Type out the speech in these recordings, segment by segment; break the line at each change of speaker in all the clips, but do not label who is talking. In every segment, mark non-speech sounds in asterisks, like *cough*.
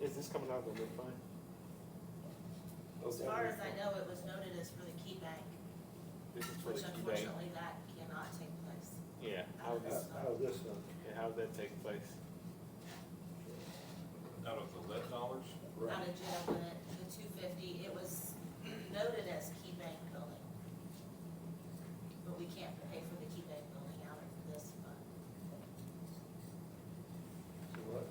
Is this coming out of the mid-fund?
As far as I know, it was noted as for the key bank,
This is for the key
which
bank.
unfortunately that cannot take place.
Yeah, how
Uh,
does,
Out of Oh, this one,
yeah, how does that take place?
Out of the lead dollars?
Out
right,
of jail limit, the two fifty, it was noted as key bank building. But we can't pay for the key bank building out of this fund.
so what,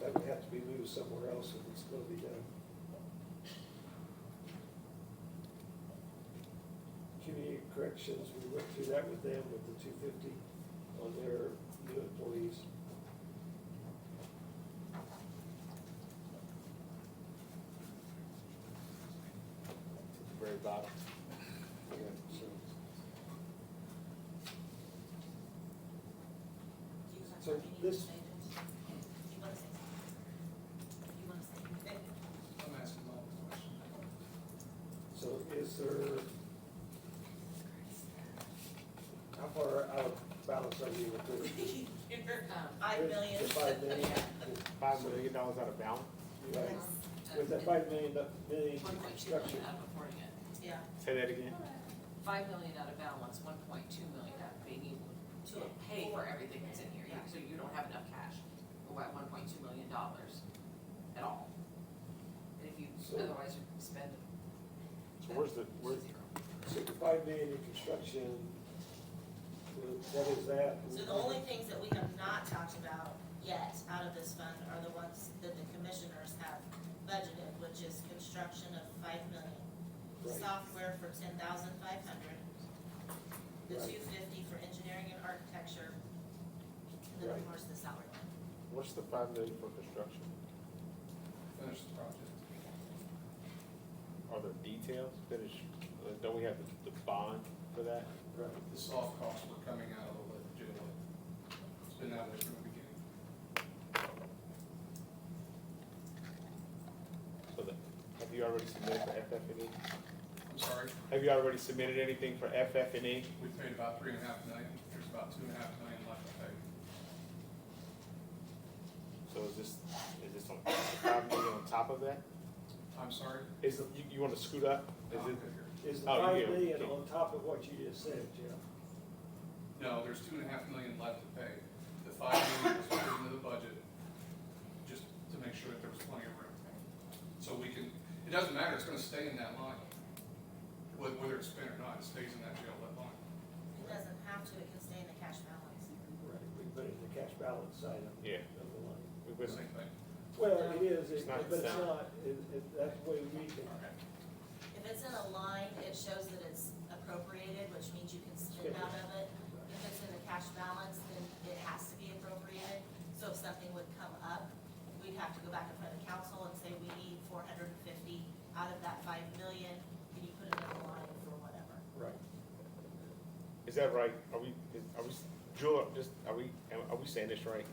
that would have to be moved somewhere else if it's gonna be done. Community corrections, we went through that with them with the two fifty on their new employees.
Very bottom.
Yeah, so,
Do you
So
have any
this-
changes? You wanna say something? You wanna say anything? *laughs*
I'm asking my own question.
so is there, how far out of balance are you with this?
Five
Um,
With
million.
The five
*laughs*
million,
Five million dollars out of balance,
right, with that five million, million
One point two
structure,
million out of reporting it,
Yeah,
say that again,
five million out of balance, one point two million out of being able to pay for everything that's in here, You- so you don't have enough cash. We're at one point two million dollars at all. And if you,
So-
otherwise you spend.
so where's the, where's,
zero.
so the five million in construction, what is that?
so the only things that we have not talked about yet out of this fund are the ones that the commissioners have budgeted, which is construction of five million.
Right.
Software for ten thousand five hundred. The
Right.
two fifty for engineering and architecture. And then of
Right.
course the salary line.
what's the five million for construction?
Finish the project.
Are there details, finish, uh, don't we have the, the bond for that?
Right,
The soft costs were coming out of the lit- jail. lit. It's been that way from the beginning.
So the, have you already submitted for FF&E?
I'm sorry,
E? Have you already submitted anything for FF&E?
we paid about three and a half million, there's about two and a half million left to pay.
So is this, is this on, five million on top of that?
I'm sorry?
Is, you, you wanna scoot up? Is it,
No, I'm good here.
is the
Oh,
five
yeah,
million
okay.
on top of what you just said, Jeff?
No, there's two and a half million left to pay. The five million was put into the budget, just to make sure that there was plenty of room. So we can, it doesn't matter, it's gonna stay in that line. Wh- Whether it's spent or not, it stays in that jail lit line.
It doesn't have to, it can stay in the cash balance.
Right, we put it in the cash balance side of,
yeah,
of the line.
we've
Same
been,
thing.
Well, it is,
It's
it-
not
but it's
sound.
not, it, it, that's the way we can,
Okay.
If it's in a line, it shows that it's appropriated, which means you can spend out of it. If it's in a cash balance, then it has to be appropriated. So if something would come up, we'd have to go back in front of council and say, we need four hundred and fifty out of that five million. Can you put another line for whatever?
right,
is that right? Are we, is- are we, Jewel, just, are we, am- are we saying this right?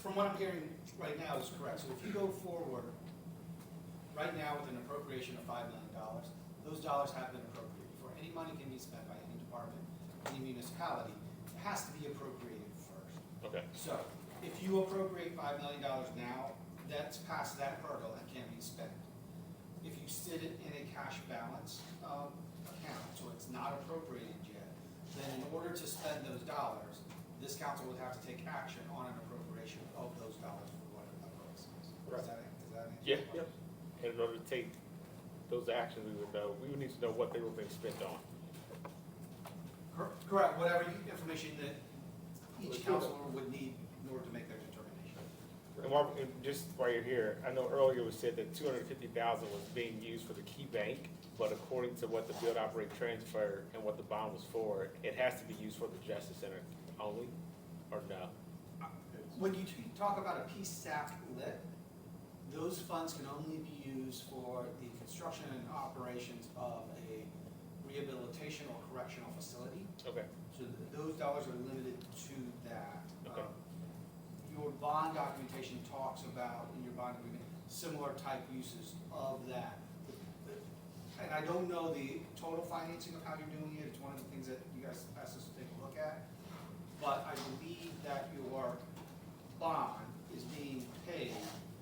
From what I'm hearing right now is correct. So if you go forward, right now with an appropriation of five million dollars, those dollars have been appropriated. Before any money can be spent by any department, any municipality, it has to be appropriated first.
Okay.
So if you appropriate five million dollars now, that's past that hurdle and can be spent. If you sit it in a cash balance um, account, so it's not appropriated yet, then in order to spend those dollars, this council would have to take action on an appropriation of those dollars for whatever that purpose is.
Right.
Does that, does that answer?
Yeah.
your question?
And in order to take those actions, we would know, we would need to know what they were being spent on.
Cor- Correct, whatever you- information that
Let's
each
do that.
council would need in order to make their determination.
And while, and just while you're here, I know earlier was said that two hundred and fifty thousand was being used for the key bank, but according to what the build operate transfer and what the bond was for, it has to be used for the Justice Center only, or no?
When you t- talk about a PSAP lit, those funds can only be used for the construction and operations of a rehabilitation or correctional facility.
Okay,
So th- those dollars are limited to that.
Okay.
Um, Your bond documentation talks about, in your bond agreement, similar type uses of that. And I don't know the total financing of how you're doing it, it's one of the things that you guys asked us to take a look at. But I believe that your bond is being paid